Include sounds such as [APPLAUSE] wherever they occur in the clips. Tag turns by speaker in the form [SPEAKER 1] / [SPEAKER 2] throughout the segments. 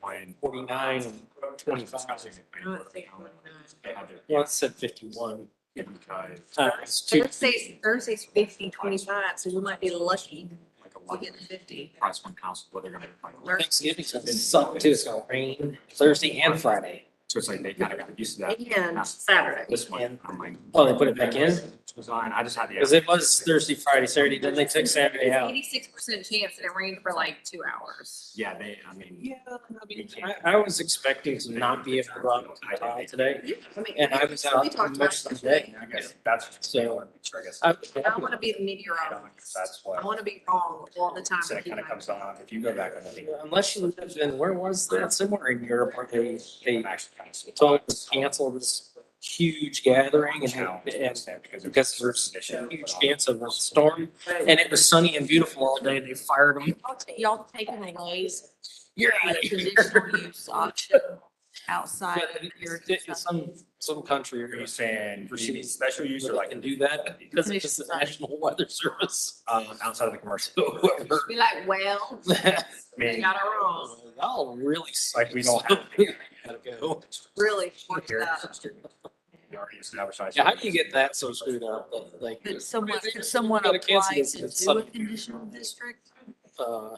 [SPEAKER 1] 49. 49 and 25. Well, it said 51. Uh, it's two-
[SPEAKER 2] Thursday's, Thursday's fifty twenty-five, so we might be lucky to get the fifty.
[SPEAKER 3] Price one council, whether they're gonna.
[SPEAKER 1] Thanksgiving's gonna suck too. It's gonna rain Thursday and Friday.
[SPEAKER 3] So it's like they kind of got used to that.
[SPEAKER 2] And Saturday.
[SPEAKER 3] This one, I'm like.
[SPEAKER 1] Oh, they put it back in?
[SPEAKER 3] Design, I just had the.
[SPEAKER 1] Because it was Thursday, Friday, Saturday, then they took Saturday out.
[SPEAKER 2] Eighty-six percent chance that it rained for like two hours.
[SPEAKER 3] Yeah, they, I mean.
[SPEAKER 1] Yeah, I mean, I, I was expecting to not be able to run today.
[SPEAKER 2] I mean,
[SPEAKER 1] And I was
[SPEAKER 2] we
[SPEAKER 1] out
[SPEAKER 2] talked about
[SPEAKER 1] most
[SPEAKER 2] it
[SPEAKER 1] of the day.
[SPEAKER 3] I guess that's.
[SPEAKER 1] So-
[SPEAKER 3] I guess.
[SPEAKER 1] I-
[SPEAKER 2] I wanna be the meteorologist.
[SPEAKER 3] That's
[SPEAKER 2] I
[SPEAKER 3] what.
[SPEAKER 2] wanna be wrong all the time.
[SPEAKER 3] So it kind of comes on, if you go back on the.
[SPEAKER 1] Unless you live in, where was that? Somewhere in Europe where they, they
[SPEAKER 3] Actually, kind of.
[SPEAKER 1] told us to cancel this huge gathering and, and because there's a huge chance of a storm. And it was sunny and beautiful all day. They fired them.
[SPEAKER 4] Y'all ta- Y'all taking
[SPEAKER 1] [LAUGHS]
[SPEAKER 4] away s-
[SPEAKER 1] You're out
[SPEAKER 4] like
[SPEAKER 1] of here.
[SPEAKER 4] conditional use option outside
[SPEAKER 1] But
[SPEAKER 4] of
[SPEAKER 1] it-
[SPEAKER 4] your.
[SPEAKER 1] it- it's some- Some country
[SPEAKER 3] Are
[SPEAKER 1] or
[SPEAKER 3] you saying you need special use or
[SPEAKER 1] user
[SPEAKER 3] like,
[SPEAKER 1] can do that because it's the National [LAUGHS] Weather Service.
[SPEAKER 3] um, outside of the
[SPEAKER 1] [LAUGHS]
[SPEAKER 3] commercial?
[SPEAKER 1] So whoever.
[SPEAKER 2] Be like,
[SPEAKER 1] [LAUGHS]
[SPEAKER 2] well,
[SPEAKER 1] I
[SPEAKER 2] they
[SPEAKER 3] mean,
[SPEAKER 2] got it wrong,
[SPEAKER 1] Y'all really.
[SPEAKER 3] Like, we don't have-
[SPEAKER 1] [LAUGHS]
[SPEAKER 3] [LAUGHS]
[SPEAKER 1] Gotta go.
[SPEAKER 2] really
[SPEAKER 3] Here,
[SPEAKER 2] worked it up.
[SPEAKER 3] you already established.
[SPEAKER 1] Yeah, how do you get that so screwed up? Like,
[SPEAKER 4] Could someone, could someone
[SPEAKER 1] Gotta cancel
[SPEAKER 4] apply
[SPEAKER 1] this
[SPEAKER 4] to
[SPEAKER 1] in
[SPEAKER 4] do
[SPEAKER 1] some-
[SPEAKER 4] a conditional district?
[SPEAKER 1] uh,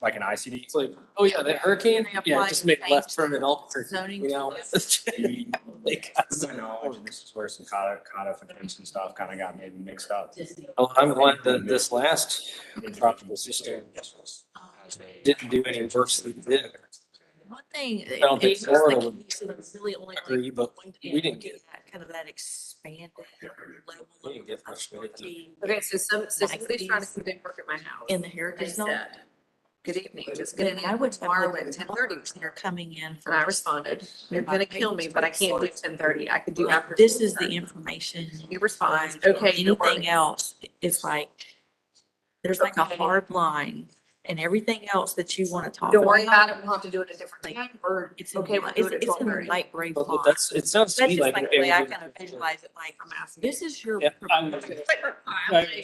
[SPEAKER 3] Like an ICD?
[SPEAKER 1] it's like, oh yeah, that hurricane,
[SPEAKER 4] They
[SPEAKER 1] yeah,
[SPEAKER 4] apply
[SPEAKER 1] just
[SPEAKER 4] the
[SPEAKER 1] make
[SPEAKER 4] same
[SPEAKER 1] left turn at Albuquerque,
[SPEAKER 4] zoning
[SPEAKER 1] you know?
[SPEAKER 4] to
[SPEAKER 1] [LAUGHS]
[SPEAKER 3] [LAUGHS]
[SPEAKER 1] Like,
[SPEAKER 3] I know, and this is where some codi- codification stuff kind of got maybe mixed up.
[SPEAKER 1] oh, I'm glad that this last tropical system
[SPEAKER 4] uh,
[SPEAKER 1] didn't do any worse than it did.
[SPEAKER 4] One thing. I
[SPEAKER 1] don't think Florida would
[SPEAKER 4] Really only. like
[SPEAKER 1] Agree, but
[SPEAKER 4] going to
[SPEAKER 1] we didn't get-
[SPEAKER 4] that Kind of that expanded level.
[SPEAKER 1] We didn't get much of
[SPEAKER 4] of
[SPEAKER 1] it.
[SPEAKER 4] being
[SPEAKER 2] Okay, so some, so somebody's trying to come in work at my house.
[SPEAKER 4] In the
[SPEAKER 2] I
[SPEAKER 4] heritage zone.
[SPEAKER 2] said, good evening, just
[SPEAKER 4] Then
[SPEAKER 2] getting
[SPEAKER 4] I
[SPEAKER 2] in
[SPEAKER 4] would have
[SPEAKER 2] tomorrow
[SPEAKER 4] lived
[SPEAKER 2] at ten thirty.
[SPEAKER 4] in Florida, and They're coming in. for
[SPEAKER 2] And I
[SPEAKER 4] this.
[SPEAKER 2] responded, you're gonna kill me, but I can't do ten thirty. I could do after.
[SPEAKER 4] This is the
[SPEAKER 2] 10:30."
[SPEAKER 4] information.
[SPEAKER 2] He responds,
[SPEAKER 4] lines,
[SPEAKER 2] okay, you're
[SPEAKER 4] Anything
[SPEAKER 2] right.
[SPEAKER 4] else, it's like, there's like a
[SPEAKER 2] Okay.
[SPEAKER 4] hard line and everything else that you want to talk
[SPEAKER 2] Don't worry
[SPEAKER 4] about.
[SPEAKER 2] about it. We'll have to do it a different time or
[SPEAKER 4] It's in,
[SPEAKER 2] okay,
[SPEAKER 4] the-
[SPEAKER 2] we'll do
[SPEAKER 4] it's,
[SPEAKER 2] it at
[SPEAKER 4] it's
[SPEAKER 2] twelve
[SPEAKER 4] in the
[SPEAKER 2] thirty.
[SPEAKER 4] light gray
[SPEAKER 1] But
[SPEAKER 4] line. That's
[SPEAKER 1] that's, it sounds to me
[SPEAKER 4] just
[SPEAKER 1] like.
[SPEAKER 4] like the way I kind of visualize it, like,
[SPEAKER 2] I'm asking.
[SPEAKER 4] this is your.
[SPEAKER 1] Yeah, I'm- I would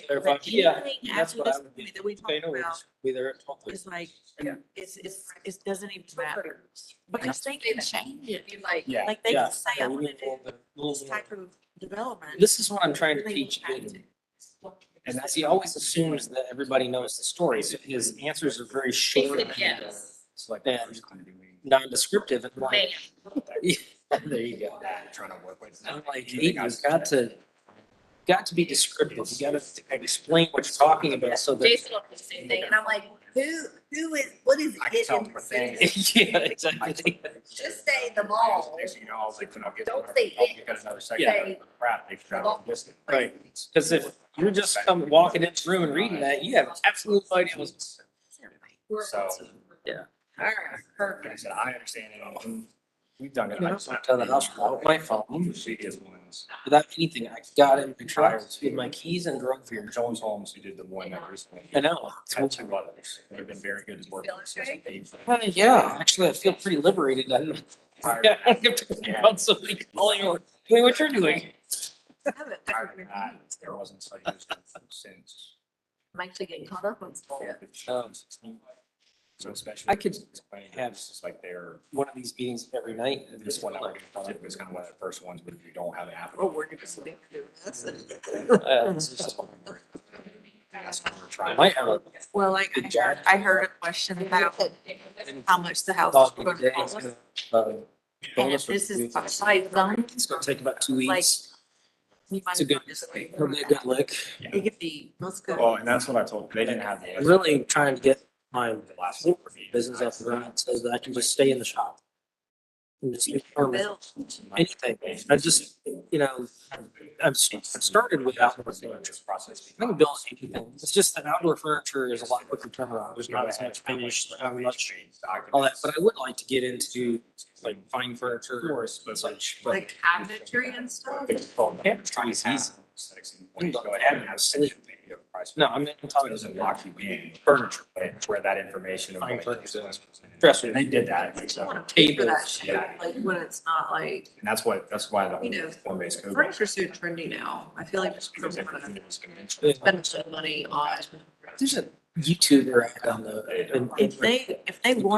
[SPEAKER 1] clarify, yeah,
[SPEAKER 4] Anything
[SPEAKER 1] that's
[SPEAKER 4] after
[SPEAKER 1] what I
[SPEAKER 4] this
[SPEAKER 1] would do.
[SPEAKER 4] movie that we
[SPEAKER 1] Okay,
[SPEAKER 4] talked
[SPEAKER 1] no worries.
[SPEAKER 4] about
[SPEAKER 1] Be there at twelve thirty.
[SPEAKER 4] is like,
[SPEAKER 3] Yeah.
[SPEAKER 4] it's, it's, it doesn't even matter. Because they
[SPEAKER 2] Say
[SPEAKER 4] can
[SPEAKER 2] that.
[SPEAKER 4] change it.
[SPEAKER 2] Be like,
[SPEAKER 3] Yeah.
[SPEAKER 4] Like they
[SPEAKER 1] Yeah,
[SPEAKER 4] can say,
[SPEAKER 1] yeah,
[SPEAKER 4] I
[SPEAKER 1] we
[SPEAKER 4] want to
[SPEAKER 1] need a little
[SPEAKER 4] do
[SPEAKER 1] bit- little
[SPEAKER 4] this
[SPEAKER 1] more.
[SPEAKER 4] type of development.
[SPEAKER 1] This is what I'm trying to
[SPEAKER 4] They
[SPEAKER 1] teach.
[SPEAKER 4] have
[SPEAKER 1] Aiden.
[SPEAKER 4] to.
[SPEAKER 1] And that's, he always assumes that everybody knows the story, so his answers are very short. and
[SPEAKER 2] yes.
[SPEAKER 3] It's like.
[SPEAKER 1] Yeah. [LAUGHS] Non-descriptive and like, there you go.
[SPEAKER 3] Trying to work with.
[SPEAKER 1] I'm like, Aiden, you've got to, got to be descriptive. You gotta explain what you're talking about so that.
[SPEAKER 2] Jason will do the same thing. And I'm like,
[SPEAKER 4] Who, who is, what is
[SPEAKER 3] I can
[SPEAKER 4] it
[SPEAKER 3] tell
[SPEAKER 4] in
[SPEAKER 3] them a
[SPEAKER 4] the
[SPEAKER 3] thing. [LAUGHS]
[SPEAKER 2] [LAUGHS]
[SPEAKER 4] sentence?
[SPEAKER 1] Yeah, exactly.
[SPEAKER 2] just say the ball.
[SPEAKER 3] Next thing You know, I was like, when I get.
[SPEAKER 2] Don't say
[SPEAKER 3] I'll get another second.
[SPEAKER 2] Say-
[SPEAKER 3] Crap, they forgot all this.
[SPEAKER 1] Right. Cause if you're just come walking into the room and reading that, you have absolute no idea what's.
[SPEAKER 3] So.
[SPEAKER 1] Yeah.
[SPEAKER 2] All right,
[SPEAKER 3] Like I
[SPEAKER 2] perfect.
[SPEAKER 3] said, I understand it all. We've done
[SPEAKER 1] You
[SPEAKER 3] it.
[SPEAKER 1] know, I just went to the hospital with my phone
[SPEAKER 3] She is ones.
[SPEAKER 1] without anything. I got in my truck with my keys and drove
[SPEAKER 3] For your
[SPEAKER 1] here.
[SPEAKER 3] Jones Holmes, who did the one that recently.
[SPEAKER 1] I know.
[SPEAKER 3] Had two others. They've been very good at working. since they've-
[SPEAKER 1] Uh, yeah, actually, I feel pretty liberated. I don't, [LAUGHS] I
[SPEAKER 3] Tired.
[SPEAKER 1] don't have to think about somebody calling or doing what you're doing.
[SPEAKER 2] I haven't- I
[SPEAKER 3] Tired of
[SPEAKER 2] haven't-
[SPEAKER 3] that. There wasn't such a since.
[SPEAKER 2] I'm actually getting caught up on stuff.
[SPEAKER 1] Um,
[SPEAKER 3] So especially.
[SPEAKER 1] I could have-
[SPEAKER 3] Have, just like their,
[SPEAKER 1] One of these meetings every night. and
[SPEAKER 3] this one that we're
[SPEAKER 1] like,
[SPEAKER 3] gonna talk was kind of one of the first ones, but if you don't have it happen.
[SPEAKER 2] Oh, we're gonna sleep through
[SPEAKER 1] [LAUGHS]
[SPEAKER 2] this.
[SPEAKER 1] uh, it's just-
[SPEAKER 3] That's what we're
[SPEAKER 1] I
[SPEAKER 3] trying.
[SPEAKER 1] might have a
[SPEAKER 4] Well, like I heard, I heard a question about how much the house is
[SPEAKER 1] thought
[SPEAKER 4] going
[SPEAKER 1] of
[SPEAKER 4] to
[SPEAKER 1] the
[SPEAKER 4] cost.
[SPEAKER 1] day. uh,
[SPEAKER 4] And
[SPEAKER 1] bonus
[SPEAKER 4] if
[SPEAKER 1] for
[SPEAKER 4] this
[SPEAKER 1] you.
[SPEAKER 4] is by zone.
[SPEAKER 1] It's gonna take about two weeks.
[SPEAKER 4] you might
[SPEAKER 1] It's a good,
[SPEAKER 4] as well just-
[SPEAKER 1] it'll be a good Oh, lick.
[SPEAKER 4] It could be, let's go.
[SPEAKER 3] Well, and that's what I told, they didn't have. the-
[SPEAKER 1] I'm really trying to get my
[SPEAKER 3] The last.
[SPEAKER 1] business up and running so that I can just stay in the shop. And just get permits,
[SPEAKER 4] Bill,
[SPEAKER 1] anything. I just, you know, I've st- I've started with outdoor furniture.
[SPEAKER 3] Process.
[SPEAKER 1] I can build anything. It's just that outdoor furniture is a lot quicker turnaround. There's not as much finish, not much, all that. But I would like to get into like fine furniture or such. but-
[SPEAKER 2] [LAUGHS] Like cabinetry and stuff.
[SPEAKER 1] Cabinetry is easy. No, I'm not
[SPEAKER 3] So it
[SPEAKER 1] talking
[SPEAKER 3] doesn't
[SPEAKER 1] about
[SPEAKER 3] lock you in
[SPEAKER 1] furniture.
[SPEAKER 3] but where that information.
[SPEAKER 1] Fine purchase.
[SPEAKER 3] Dresser, they did that. and so- And
[SPEAKER 2] For that
[SPEAKER 1] Tables.
[SPEAKER 2] shit, like when it's not like,
[SPEAKER 3] that's what, that's why the.
[SPEAKER 2] You know,
[SPEAKER 3] Form based code.
[SPEAKER 2] furniture's so trendy now. I feel like people
[SPEAKER 3] Because
[SPEAKER 2] want to
[SPEAKER 3] everything was conventional.
[SPEAKER 2] spend some money on
[SPEAKER 1] There's a YouTuber out on the, in- in
[SPEAKER 4] if they, if they want